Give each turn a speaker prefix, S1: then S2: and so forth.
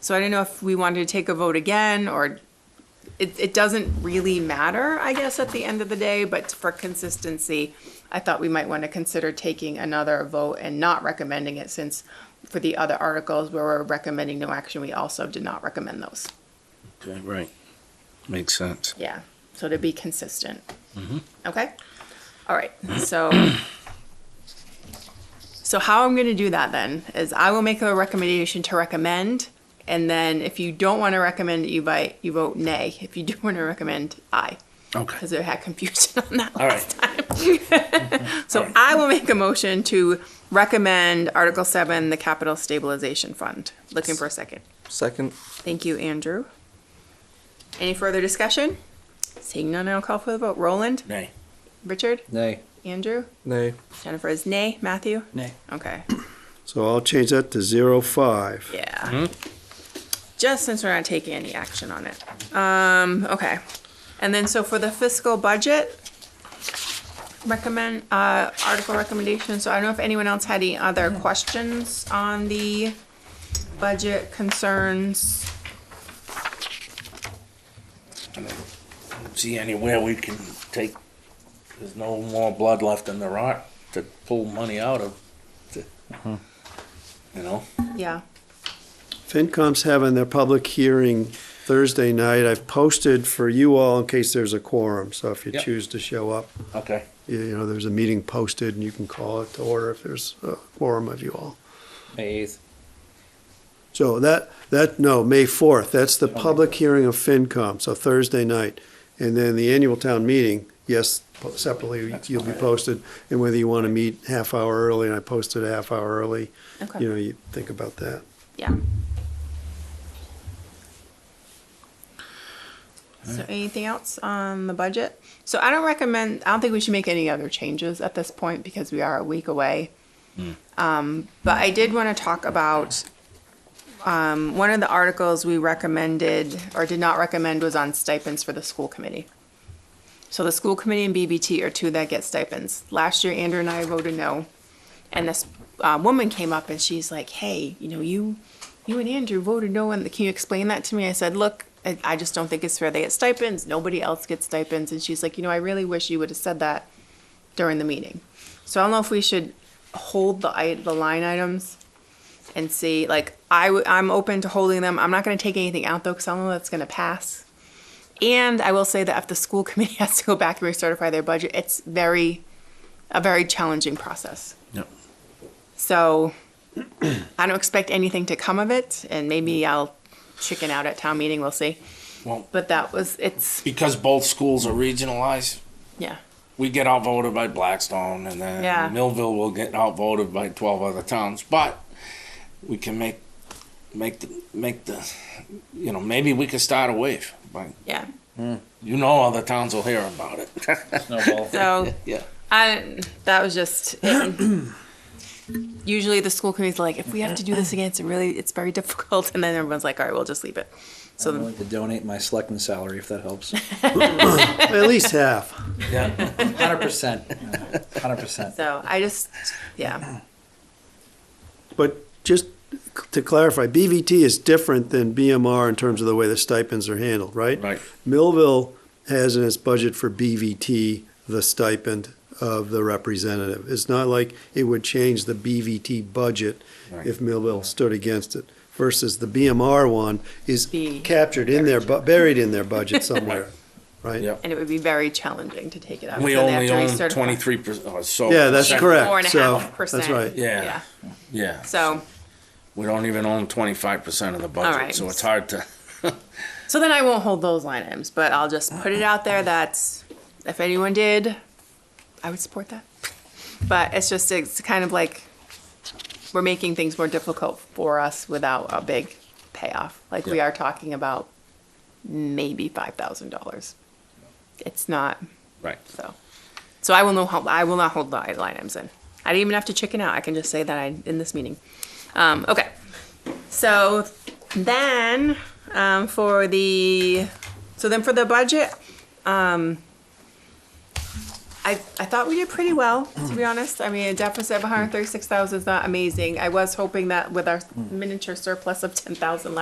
S1: So I don't know if we wanted to take a vote again or it, it doesn't really matter, I guess, at the end of the day, but for consistency, I thought we might want to consider taking another vote and not recommending it since for the other articles where we're recommending no action, we also did not recommend those.
S2: Okay, right. Makes sense.
S1: Yeah, so to be consistent.
S2: Mm-hmm.
S1: Okay, all right, so. So how I'm gonna do that then is I will make a recommendation to recommend. And then if you don't wanna recommend, it, you vote, you vote nay. If you do wanna recommend, aye. Cause
S2: Okay.
S1: I had confusion on that
S2: All
S1: last
S2: right.
S1: time. So I will make a motion to recommend Article seven, the capital stabilization fund. Looking for a second.
S3: Second.
S1: Thank you, Andrew. Any further discussion? Seeing none, I'll call for the vote. Roland?
S2: Nay.
S1: Richard?
S4: Nay.
S1: Andrew?
S3: Nay.
S1: Jennifer is nay. Matthew?
S4: Nay.
S1: Okay,
S5: So I'll change that to zero five.
S1: yeah. Just since we're not taking any action on it. Um, okay. And then so for the fiscal budget, recommend, uh, article recommendation. So I don't know if anyone else had any other questions on the budget concerns.
S2: See anywhere we can take, there's no more blood left in the rock to pull money out of. to- You know?
S1: Yeah,
S5: FinCom's having their public hearing Thursday night. I've posted for you all in case there's a quorum. So if you
S2: Yep.
S5: choose to show up,
S2: Okay.
S5: you you know, there's a meeting posted and you can call it to order if there's a quorum of you all.
S4: May 8th.
S5: So that, that, no, May 4th, that's the public hearing of FinCom, so Thursday night. And then the annual town meeting, yes, po- separately, you'll be posted. And whether you want to meet half hour early, and I posted a half hour early,
S1: okay.
S5: you know, you think about that.
S1: Yeah. So anything else on the budget? So I don't recommend, I don't think we should make any other changes at this point because we are a week away. Um, but I did want to talk about, um, one of the articles we recommended or did not recommend was on stipends for the school committee. So the school committee and BBT are two that get stipends. Last year, Andrew and I voted no. And this uh, woman came up and she's like, "Hey, you know, you, you and Andrew voted no, and can you explain that to me?" I said, "Look, I, I just don't think it's fair. They get stipends. Nobody else gets stipends." And she's like, "You know, I really wish you would have said that during the meeting." So I don't know if we should hold the i- the line items and see. Like, I w- I'm open to holding them. I'm not going to take anything out though, because I don't know that's going to pass. And I will say that if the school committee has to go back and recertify their budget, it's very, a very challenging process.
S2: Yep.
S1: So I don't expect anything to come of it, and maybe I'll chicken out at town meeting. We'll see.
S2: Well,
S1: But that was it's
S2: because both schools are regionalized,
S1: yeah
S2: we get outvoted by Blackstone and then
S1: Yeah.
S2: Millville will get outvoted by 12 other towns, but we can make make the make the you know, maybe we could start a wave. But
S1: yeah.
S2: you know other towns will hear about it.
S4: Snowball.
S1: So
S2: yeah.
S1: I that was just. it. Usually the school committee's like, if we have to do this again, it's really it's very difficult, and then everyone's like, all right, we'll just leave it.
S4: I'm willing to donate my selectman salary if that helps.
S5: At least half.
S2: Yeah.
S4: 100%. 100%.
S1: So I just yeah
S5: But just to clarify, BVT is different than BMR in terms of the way the stipends are handled, right?
S2: Right.
S5: Millville has in its budget for BVT the stipend of the representative. It's not like it would change the BVT budget
S2: Right.
S5: if Millville stood against it. Versus the BMR one is
S1: Be-
S5: captured in their, bu- buried in their budget somewhere, right?
S2: Yep.
S1: and it would be very challenging to take it out.
S2: We
S1: so they have
S2: only
S1: to
S2: own
S1: recertify.
S2: twenty three percent. So
S5: Yeah, that's
S2: percent-
S5: correct.
S1: Four and a
S5: So,
S1: half percent.
S5: that's right.
S2: Yeah.
S1: Yeah.
S2: Yeah,
S1: So
S2: we don't even own twenty five percent of the budget,
S1: All right.
S2: so it's hard to.
S1: So then I won't hold those line items, but I'll just put it out there that if anyone did, I would support that. But it's just, it's kind of like we're making things more difficult for us without a big payoff. Like we
S2: Yeah.
S1: are talking about maybe $5,000. It's not,
S2: Right.
S1: so. So I will not hold, I will not hold the line items in. I didn't even have to chicken out. I can just say that I, in this meeting. Um, okay. So then, um, for the, so then for the budget, um, I, I thought we did pretty well, to be honest. I mean, a deficit of 136,000 is not amazing. I was hoping that with our miniature surplus of 10,000 last